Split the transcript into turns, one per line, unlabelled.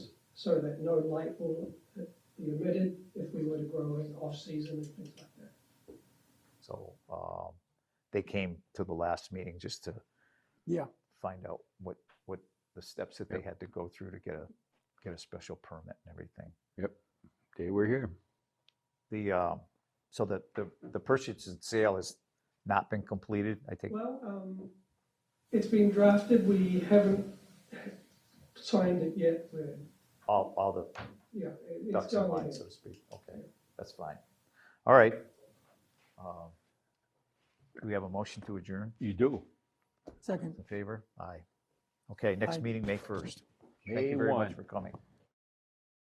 so that no light will be emitted if we were to grow in off-season and things like that.
So um, they came to the last meeting just to
Yeah,
find out what, what the steps that they had to go through to get a, get a special permit and everything.
Day we're here.
The, um, so the, the, the purchase and sale has not been completed, I think.
Well, um, it's being drafted, we haven't signed it yet, we're,
All, all the
yeah, it- it's
ducks in
going
line,
in.
so to speak. Okay, that's fine. All right. Um, Do we have a motion to adjourn?
You do.
second.
In favor? Aye. Okay,
Aye.
next meeting, May 1st. Thank
May
you very
1.
much for coming.